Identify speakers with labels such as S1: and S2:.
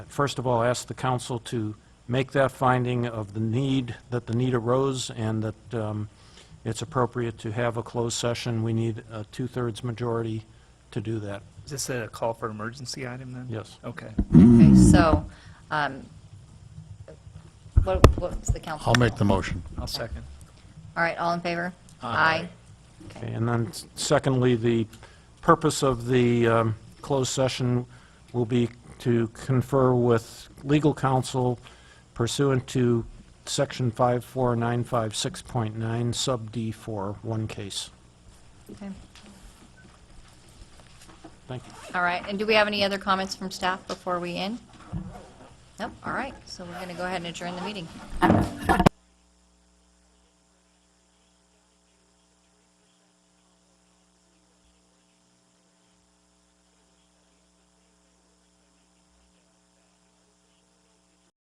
S1: first of all, ask the council to make that finding of the need, that the need arose, and that um, it's appropriate to have a closed session. We need a two-thirds majority to do that.
S2: Is this a call for emergency item then?
S1: Yes.
S2: Okay.
S3: Okay, so, um, what, what's the council?
S4: I'll make the motion.
S2: I'll second.
S3: All right, all in favor?
S2: Aye.
S1: Okay, And then s- secondly, the purpose of the um, closed session will be to confer with legal counsel pursuant to Section 54956.9 Sub D for one case.
S3: Okay.
S1: Thank you.
S3: All right, and do we have any other comments from staff before we end? Nope, all right, so we're going to go ahead and adjourn the meeting.